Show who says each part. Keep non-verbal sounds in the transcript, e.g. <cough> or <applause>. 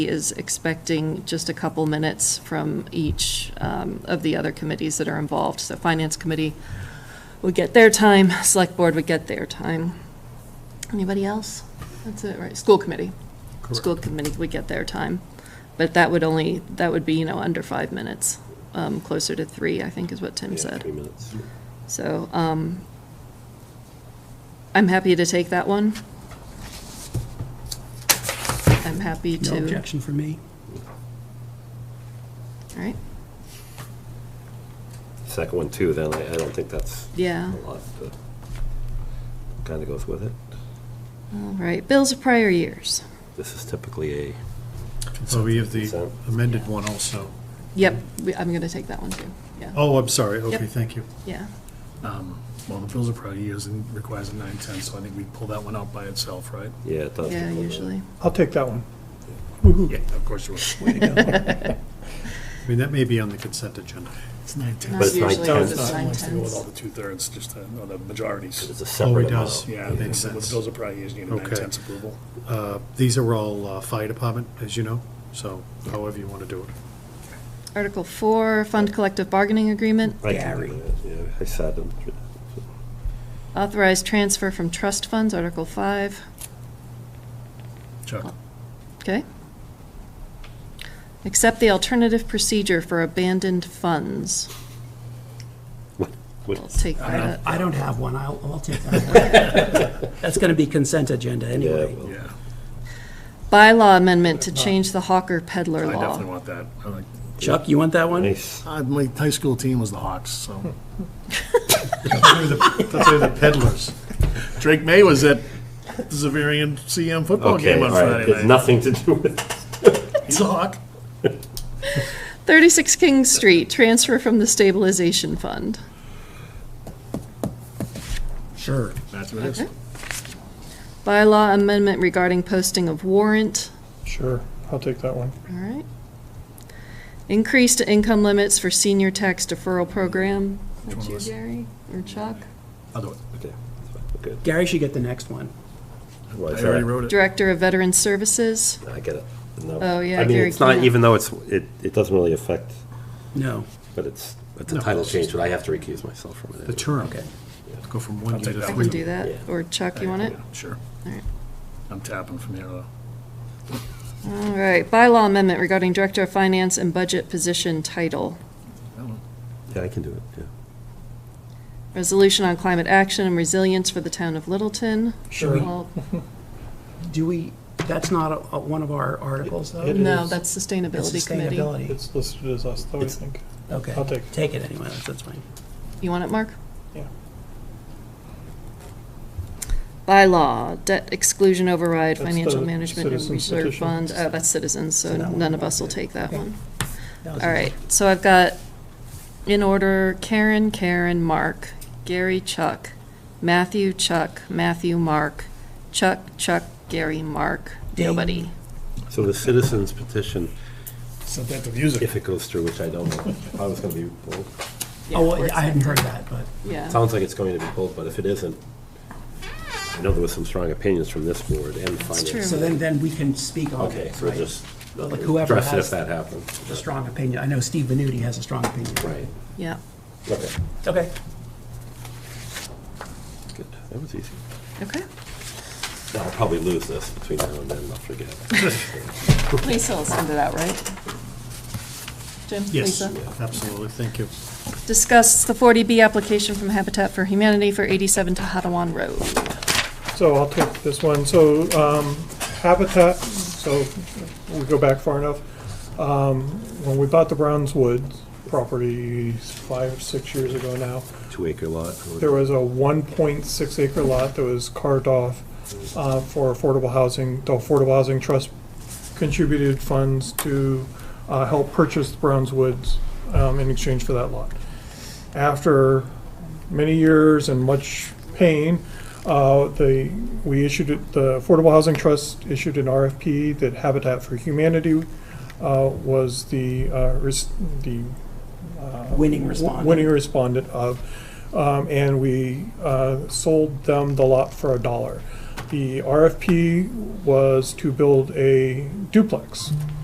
Speaker 1: is expecting just a couple minutes from each um, of the other committees that are involved. So Finance Committee would get their time, Select Board would get their time. Anybody else? That's it, right? School Committee. School Committee would get their time. But that would only, that would be, you know, under five minutes, um, closer to three, I think is what Tim
Speaker 2: Yeah,
Speaker 1: said.
Speaker 2: Three minutes.
Speaker 1: So um, I'm happy to take that one. I'm happy to.
Speaker 3: No objection from me.
Speaker 1: All right,
Speaker 2: Second one too, then I, I don't think that's a
Speaker 1: yeah,
Speaker 2: lot, but kind of goes with it.
Speaker 1: all right. Bills of prior years.
Speaker 2: This is typically a,
Speaker 4: So Oh, we have the
Speaker 2: So-
Speaker 4: amended one also.
Speaker 1: Yep, we- I'm going to take that one too. Yeah,
Speaker 4: Oh, I'm sorry, okay,
Speaker 1: Yep.
Speaker 4: thank you.
Speaker 1: yeah,
Speaker 5: Um, Well, the bills are probably years and requires a nine-ten, so I think we pull that one out by itself, right?
Speaker 2: yeah, it does.
Speaker 1: yeah, usually.
Speaker 6: I'll take that one.
Speaker 5: Yeah, of course you will.
Speaker 4: I mean, that may be on the consent agenda.
Speaker 5: It's nine-ten.
Speaker 1: Not
Speaker 2: it's nine
Speaker 1: usually, because
Speaker 2: tenths.
Speaker 1: it's nine
Speaker 5: Wants to go with all
Speaker 1: tenths.
Speaker 5: the two-thirds, just, uh, or the majorities.
Speaker 2: It's a
Speaker 4: Oh,
Speaker 2: separate
Speaker 4: it
Speaker 2: amount.
Speaker 4: does.
Speaker 5: Yeah,
Speaker 4: Makes
Speaker 5: the
Speaker 4: sense.
Speaker 5: bills are probably years, you need a
Speaker 4: Okay.
Speaker 5: nine-tenths approval.
Speaker 4: Uh, These are all uh, fire department, as you know, so however you want to do it.
Speaker 1: Article four, fund collective bargaining agreement,
Speaker 2: I can do that, Yeah, I sat them through that.
Speaker 1: authorized transfer from trust funds, article five,
Speaker 5: Chuck,
Speaker 1: okay? Accept the alternative procedure for abandoned funds.
Speaker 2: What- what-
Speaker 1: I'll take
Speaker 3: I
Speaker 1: that.
Speaker 3: don't, Uh, I don't have one, I'll, I'll take that one. That's going to be consent agenda
Speaker 2: Yeah,
Speaker 3: anyway.
Speaker 2: well,
Speaker 5: yeah,
Speaker 1: Bylaw amendment to change the hawker peddler
Speaker 5: I definitely
Speaker 1: law.
Speaker 5: want that. I like,
Speaker 3: Chuck, you want that one?
Speaker 2: nice.
Speaker 5: uh, my high school team was the Hawks, so.
Speaker 4: They're the- They're the peddlers.
Speaker 5: Drake May was at the Zavarian CM football
Speaker 2: Okay,
Speaker 5: Oh, game on
Speaker 2: all right,
Speaker 5: Friday
Speaker 2: it's
Speaker 5: night.
Speaker 2: nothing to do with,
Speaker 5: He's a Hawk.
Speaker 1: 36 King Street, transfer from the stabilization fund.
Speaker 3: Sure.
Speaker 5: That's what it is.
Speaker 1: Okay. Bylaw amendment regarding posting of warrant,
Speaker 6: Sure, I'll take that one.
Speaker 1: all right. Increased income limits for senior tax deferral program. That's you, Jerry, or Chuck?
Speaker 5: I'll do it.
Speaker 2: okay, that's fine, good.
Speaker 3: Gary should get the next one.
Speaker 2: Well,
Speaker 5: I
Speaker 2: it's
Speaker 5: already
Speaker 2: all
Speaker 5: wrote it.
Speaker 1: Director of Veteran Services,
Speaker 2: right. I get it. No.
Speaker 1: Oh, yeah,
Speaker 2: I mean,
Speaker 1: Gary
Speaker 2: it's not,
Speaker 1: can't.
Speaker 2: even though it's, it, it doesn't really affect,
Speaker 3: No.
Speaker 2: but it's, it's a title change, but I have to recuse myself from it.
Speaker 4: The
Speaker 2: anyway.
Speaker 4: term.
Speaker 3: Okay.
Speaker 4: Go from one year
Speaker 5: take
Speaker 4: to
Speaker 5: that
Speaker 1: I
Speaker 4: three.
Speaker 1: can do that,
Speaker 2: Yeah.
Speaker 1: or Chuck, you want it?
Speaker 5: Yeah, Sure.
Speaker 1: All right.
Speaker 5: I'm tapping from here, though.
Speaker 1: All right, bylaw amendment regarding Director of Finance and Budget Position Title.
Speaker 5: That one.
Speaker 2: Yeah, I can do it, yeah.
Speaker 1: Resolution on climate action and resilience for the town of Littleton.
Speaker 3: Sure.
Speaker 1: All-
Speaker 3: Do we, that's not a- a- one of our articles, though?
Speaker 6: It
Speaker 1: No,
Speaker 6: is-
Speaker 1: that's
Speaker 3: It's
Speaker 1: Sustainability Committee.
Speaker 3: Sustainability.
Speaker 6: It's listed as us, though, I think.
Speaker 3: Okay.
Speaker 6: I'll take it.
Speaker 3: Take it anyway, that's- that's fine.
Speaker 1: You want it, Mark?
Speaker 6: Yeah.
Speaker 1: Bylaw, debt exclusion override,
Speaker 6: That's
Speaker 1: financial
Speaker 6: the
Speaker 1: management and
Speaker 6: citizens
Speaker 1: reserve
Speaker 6: petition.
Speaker 1: fund. Oh, that's citizens, so
Speaker 3: So that one
Speaker 1: none
Speaker 3: I'm
Speaker 1: of us will
Speaker 3: not-
Speaker 1: take that
Speaker 3: okay.
Speaker 1: one.
Speaker 3: That was
Speaker 1: All right, so I've got, in order, Karen, Karen, Mark, Gary, Chuck, Matthew, Chuck, Matthew, Mark, Chuck, Chuck, Gary, Mark,
Speaker 3: Ding.
Speaker 1: nobody.
Speaker 2: So the citizens petition,
Speaker 5: Sent that to music.
Speaker 2: if it goes through, which I don't know, I was gonna be pulled.
Speaker 1: Yeah,
Speaker 3: Oh,
Speaker 1: we're
Speaker 3: well, I hadn't heard that, but
Speaker 1: Yeah,
Speaker 2: Sounds like it's going to be pulled, but if it isn't, I know there was some strong opinions from this board and
Speaker 1: true.
Speaker 2: finance.
Speaker 3: So then, then we can speak on
Speaker 2: Okay,
Speaker 3: it,
Speaker 2: so we'll
Speaker 3: right?
Speaker 2: just
Speaker 3: Like whoever
Speaker 2: address it if
Speaker 3: has
Speaker 2: that
Speaker 3: a
Speaker 2: happens.
Speaker 3: strong opinion. I know Steve Venuti has a strong opinion.
Speaker 2: Right,
Speaker 1: yeah.
Speaker 2: okay,
Speaker 3: Okay.
Speaker 2: good, that was easy.
Speaker 1: Okay.
Speaker 2: Now, I'll probably lose this between now and then, I'll forget.
Speaker 3: <laughs>
Speaker 1: Lisa will send it out, right? Jim,
Speaker 4: Yes,
Speaker 1: Lisa?
Speaker 4: absolutely, thank you.
Speaker 1: Discuss the 40B application from Habitat for Humanity for 87 Tohotawan Road.
Speaker 6: So I'll take this one. So um, Habitat, so we go back far enough. Um, When we bought the Brownswood property five, six years ago now,
Speaker 2: Two acre lot. or-
Speaker 6: there was a 1.6 acre lot that was carved off uh, for affordable housing. The Affordable Housing Trust contributed funds to uh, help purchase the Brownswoods um, in exchange for that lot. After many years and much pain, uh, the, we issued, it- the Affordable Housing Trust issued an RFP that Habitat for Humanity uh, was the, uh, res- the
Speaker 3: Winning
Speaker 6: w-
Speaker 3: response.
Speaker 6: winning respondent of, um, and we uh, sold them the lot for a dollar. The RFP was to build a duplex.